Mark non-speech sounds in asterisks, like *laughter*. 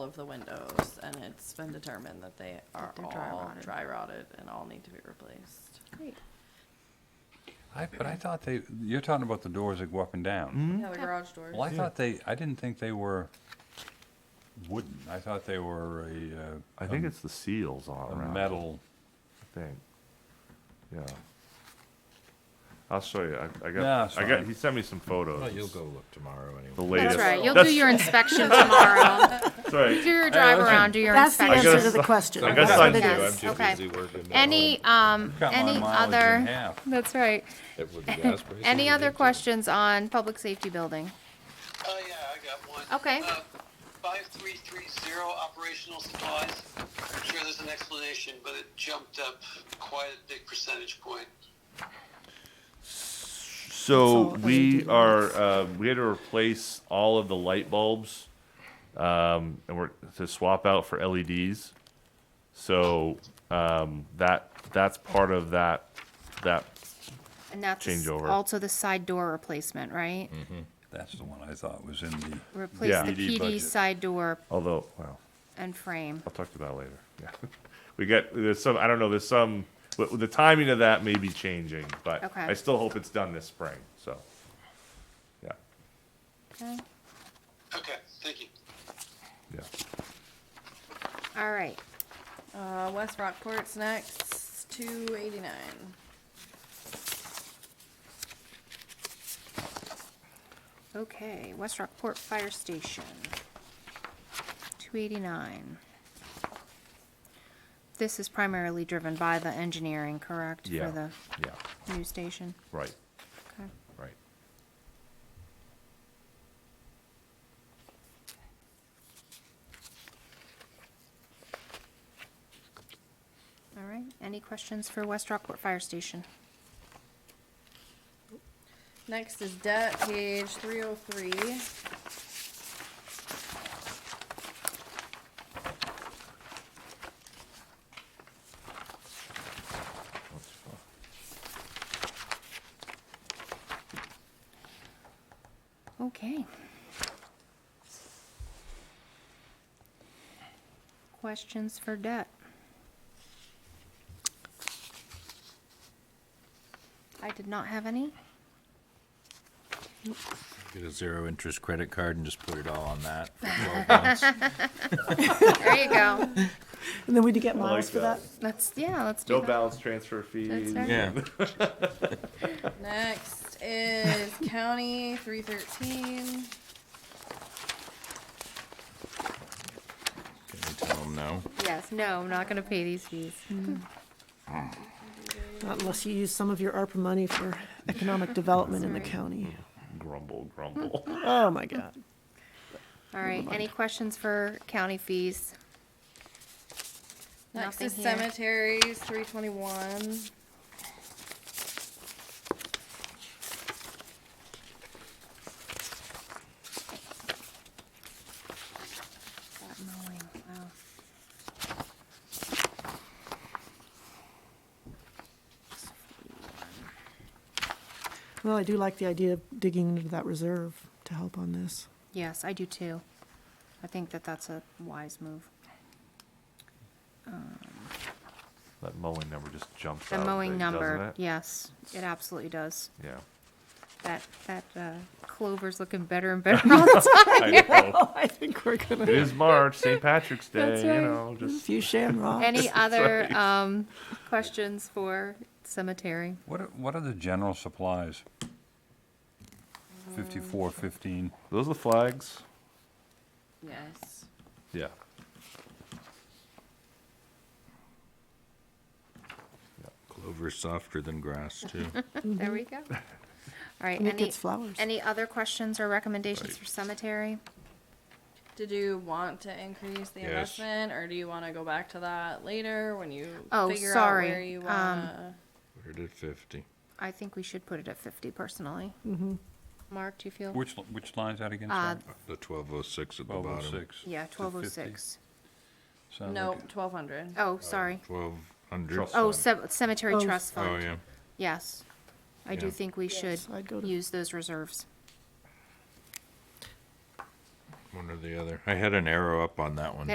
of the windows, and it's been determined that they are That they're dry all rotted. dry rotted and all need to be replaced. Great. I, but I thought they, you're talking about the doors that go up and down. Mm-hmm. Yeah, the garage doors. Well, I thought they, I didn't think they were wooden. I thought they were a, I uh, think it's the seals all a around. metal. I think. Yeah. I'll show you. I, I Nah, got. it's I got. fine. He sent me some photos. Well, you'll go look tomorrow The anyway. latest. That's right. You'll do That's- your inspection tomorrow. *laughs* Do Sorry. your drive listen. around, do your That's the I inspection. answer guess- to the question. I guess That's what I it do. is. I'm too Okay. busy working. that Any, um, Cut my any mileage in other, *laughs* half. that's right. it would be gas prices Any would other be too. questions on public safety building? Oh, yeah, I got one. Okay. Uh, 5330 operational supplies. I'm sure there's an explanation, but it jumped up quite a big percentage point. So That's all LED we lights. are. Uh, we had to replace all of the light bulbs, um, and we're to swap out for LEDs. So um, that that's part of that that And that's s- Changeover. also the side door replacement, right? That's the one I thought was in the. Replace the Yeah. PD PD budget. side door Although, well, and frame. I'll talk to that later. *laughs* Yeah, we got there's some. I don't know. There's some. But the timing of that may be changing, but Okay. I still hope it's done this spring. So, yeah, Okay. Okay, thank you. yeah. All right. Uh, West Rockport's next, two eighty-nine. Okay, West Rockport Fire Station. Two eighty-nine. This is primarily driven by the engineering, correct? Yeah. For Yeah. the new station? Right. Okay. Right. All right. Any questions for West Rockport Fire Station? Next is debt, page three oh three. Okay. Questions for debt? I did not have any. Get a zero interest credit card and just put it all on that *laughs* for 12 months. There you go. *laughs* And then we do get like miles for that. that. Let's, yeah, let's do No that. balance transfer fees. right. Yeah. Next *laughs* is county, three thirteen. Can we tell them no? Yes, no, I'm not gonna pay these fees. Not unless you use some of your ARPA money for *laughs* economic development in the Sorry. county. Grumble, grumble. Oh, my God. All right, any questions for county fees? Next Nothing is here. cemeteries, three twenty-one. That mowing, Oh, wow. Well, I do like the idea of digging into that reserve to help on *laughs* this. Yes, I do too. I think that that's a wise move. *laughs* That mowing number just jumps Mm-hmm. The out mowing big, number, doesn't it? yes, it absolutely does. Yeah. That, that uh, clover's looking better and better all the *laughs* time. I *laughs* know. Oh, I think we're gonna, It is March, St. Patrick's Day, That's you right. know, a just, few shamrocks. Any other, um, questions for cemetery? What are, what are the general supplies? Fifty-four, fifteen. those are the flags. Yes. Yeah. Clover's softer than grass, *laughs* too. There *laughs* we go. All right, And it any, gets flowers. any other questions or recommendations for cemetery? Did you want to increase the Yes. investment, or do you wanna go back to that later when you Oh, figure out sorry, where you um, wanna? We're at 50. I think we should put it at fifty personally. Mark, do you feel? Which, which line's that again? Uh, The 1206 at the Twelve bottom. oh six. Yeah, twelve oh six. No, twelve hundred. Uh, Oh, sorry. 1200. Trust Oh, fund. ce- cemetery Oh, trust Oh, fund. yeah. Yes. I do Yeah. think we should I'd go to- use those reserves. One or the other. I had an arrow up on that one.